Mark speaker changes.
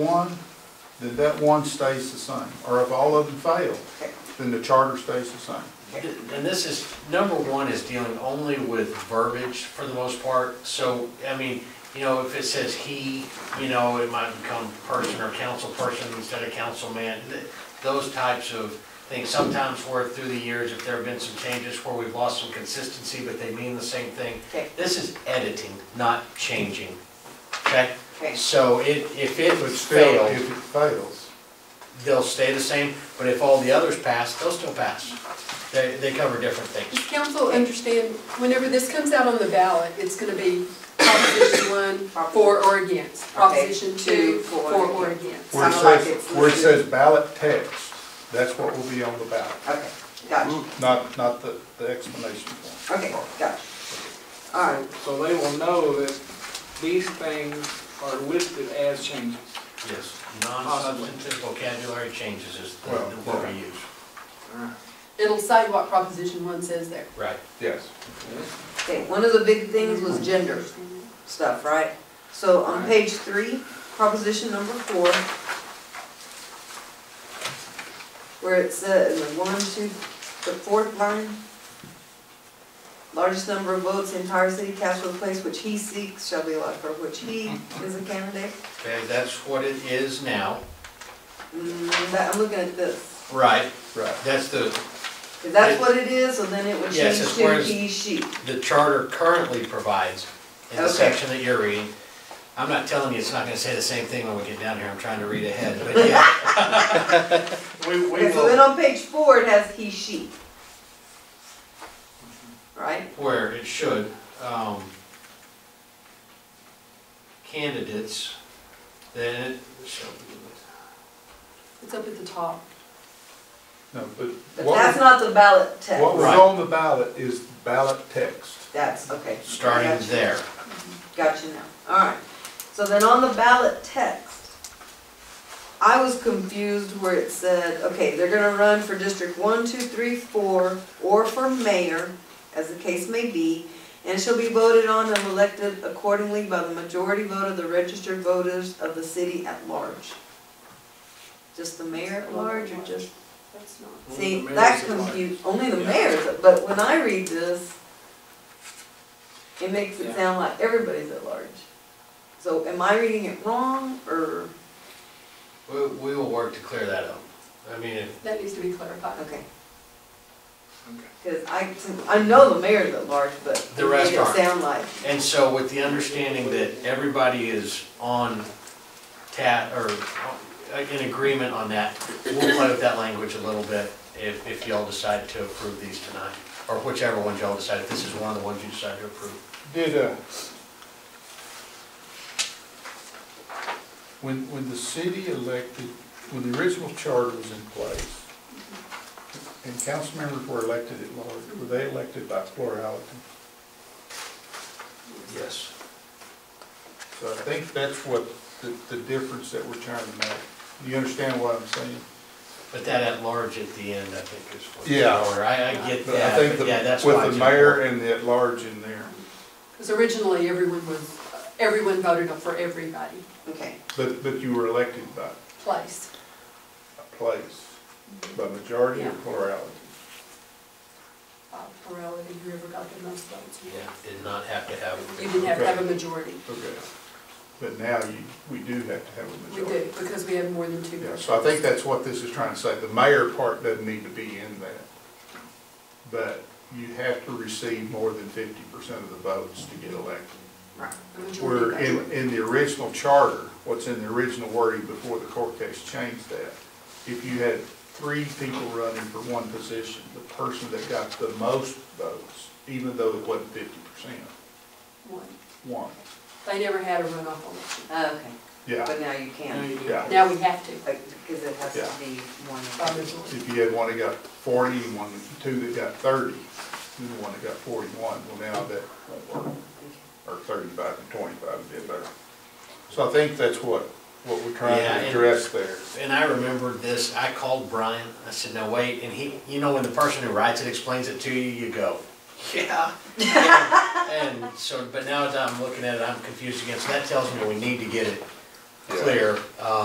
Speaker 1: one, then that one stays the same. Or if all of them fail, then the charter stays the same.
Speaker 2: And this is, number one is dealing only with verbiage for the most part, so, I mean, you know, if it says he, you know, it might become person or council person instead of councilman, th- those types of things, sometimes where through the years, if there have been some changes where we've lost some consistency, but they mean the same thing.
Speaker 3: Okay.
Speaker 2: This is editing, not changing, okay?
Speaker 3: Okay.
Speaker 2: So it, if it
Speaker 1: But still,
Speaker 2: failed,
Speaker 1: if it fails,
Speaker 2: they'll stay the same, but if all the others pass, they'll still pass. They, they cover different things.
Speaker 4: Does council understand, whenever this comes out on the ballot, it's gonna be proposition one, for or against, proposition two, for or against.
Speaker 1: where it
Speaker 3: Kinda like
Speaker 1: says,
Speaker 3: it's
Speaker 1: where it
Speaker 3: listed.
Speaker 1: says ballot text, that's what will be on the ballot,
Speaker 3: Okay, gotcha,
Speaker 1: not, not the, the explanation form.
Speaker 3: okay, gotcha. All right,
Speaker 5: So they will know that these things are listed as changes.
Speaker 2: Yes, non-substantive vocabulary changes is the-
Speaker 1: Well,
Speaker 2: the word we use.
Speaker 4: It'll say what proposition one says there.
Speaker 2: Right.
Speaker 1: Yes.
Speaker 3: okay, one of the big things was gender stuff, right? So on page three, proposition number four, where it says, in the one, two, the fourth line, largest number of votes, the entire city cast for the place which he seeks shall be allowed for which he is a candidate.
Speaker 2: Okay, that's what it is now.
Speaker 3: Mm, that- I'm looking at this,
Speaker 2: Right.
Speaker 1: Right.
Speaker 2: That's the,
Speaker 3: if that's what it is, so then it would
Speaker 2: Yes,
Speaker 3: change
Speaker 2: it's
Speaker 3: to
Speaker 2: whereas-
Speaker 3: he, she.
Speaker 2: the charter currently provides in the
Speaker 3: Okay.
Speaker 2: section that you're reading. I'm not telling you it's not gonna say the same thing when we get down here, I'm trying to read ahead, but yeah. We, we
Speaker 3: Okay, so then
Speaker 2: will,
Speaker 3: on page four, it has he, she. Right?
Speaker 2: where it should, um, candidates, then it shall be,
Speaker 4: It's up at the top.
Speaker 1: No, but
Speaker 3: But
Speaker 1: what,
Speaker 3: that's not the ballot text.
Speaker 1: what was
Speaker 2: Right.
Speaker 1: on the ballot is ballot text.
Speaker 3: That's, okay. Got
Speaker 2: starting
Speaker 3: you.
Speaker 2: there.
Speaker 3: Got you now, all right. So then on the ballot text, I was confused where it said, okay, they're gonna run for District One, Two, Three, Four, or for mayor, as the case may be, and shall be voted on and elected accordingly by the majority vote of the registered voters of the city at large. Just the mayor at large, or just?
Speaker 4: That's not.
Speaker 5: Only
Speaker 3: See,
Speaker 5: the
Speaker 3: that
Speaker 5: mayor's alive.
Speaker 3: confused, only the
Speaker 5: Yeah.
Speaker 3: mayor's, but when I read this, it makes it
Speaker 5: Yeah.
Speaker 3: sound like everybody's at large. So am I reading it wrong, or,
Speaker 2: We, we will work to clear that up. I mean, if-
Speaker 4: That needs to be clarified.
Speaker 3: okay,
Speaker 5: Okay.
Speaker 3: because I, I know the mayor's at large, but
Speaker 2: The
Speaker 3: it made
Speaker 2: rest
Speaker 3: it
Speaker 2: aren't.
Speaker 3: sound like,
Speaker 2: and so with the understanding that everybody is on ta, or uh, in agreement on that, we'll play with that language a little bit if, if y'all decide to approve these tonight, or whichever ones y'all decide, if this is one of the ones you decide to approve.
Speaker 1: Did, uh, when, when the city elected, when the original charter was in place, and council members were elected at large, were they elected by plurality?
Speaker 2: Yes.
Speaker 1: So I think that's what the, the difference that we're trying to make. Do you understand what I'm saying?
Speaker 2: But that at large at the end, I think is what.
Speaker 1: Yeah.
Speaker 2: Or I, I get
Speaker 1: But I
Speaker 2: that,
Speaker 1: think
Speaker 2: but
Speaker 1: the-
Speaker 2: yeah, that's why.
Speaker 1: With
Speaker 2: it's
Speaker 1: the mayor
Speaker 2: important.
Speaker 1: and the at-large in there.
Speaker 4: Because originally, everyone was, everyone voted for everybody,
Speaker 3: okay,
Speaker 1: But, but you were elected by
Speaker 4: place.
Speaker 1: a place, by majority or
Speaker 4: Yeah.
Speaker 1: plurality.
Speaker 4: Uh, Plurality, whoever got the most votes.
Speaker 2: Yeah, did not have to have.
Speaker 4: You didn't have to have a majority.
Speaker 1: Okay. But now you, we do have to have a
Speaker 4: We
Speaker 1: majority.
Speaker 4: do, because we have more than two.
Speaker 1: Yeah, so I think that's what this is trying to say, the mayor part doesn't need to be in that. But you have to receive more than fifty percent of the votes to get elected.
Speaker 3: right,
Speaker 4: A majority
Speaker 1: Where in,
Speaker 4: vote.
Speaker 1: in the original charter, what's in the original wording before the court case changed that, if you had three people running for one position, the person that got the most votes, even though it wasn't fifty percent,
Speaker 4: One.
Speaker 1: won.
Speaker 4: They never had a runoff election.
Speaker 3: okay,
Speaker 1: Yeah,
Speaker 3: but now you
Speaker 5: Now
Speaker 3: can,
Speaker 5: you do.
Speaker 1: yeah.
Speaker 4: Now we have to,
Speaker 3: because it has to
Speaker 1: Yeah.
Speaker 3: be
Speaker 4: by
Speaker 3: one.
Speaker 4: majority.
Speaker 1: If you had one that got forty, and one, two that got thirty, and the one that got forty-one, well, now that won't work, or thirty-five and twenty-five would be better. So I think that's what, what we're trying
Speaker 2: Yeah,
Speaker 1: to
Speaker 2: and-
Speaker 1: address there.
Speaker 2: And I remembered this, I called Brian, I said, now wait, and he, you know, when the person who writes it explains it to you, you go, yeah. And and so, but now that I'm looking at it, I'm confused again, so that tells me we need to get it clear. Um,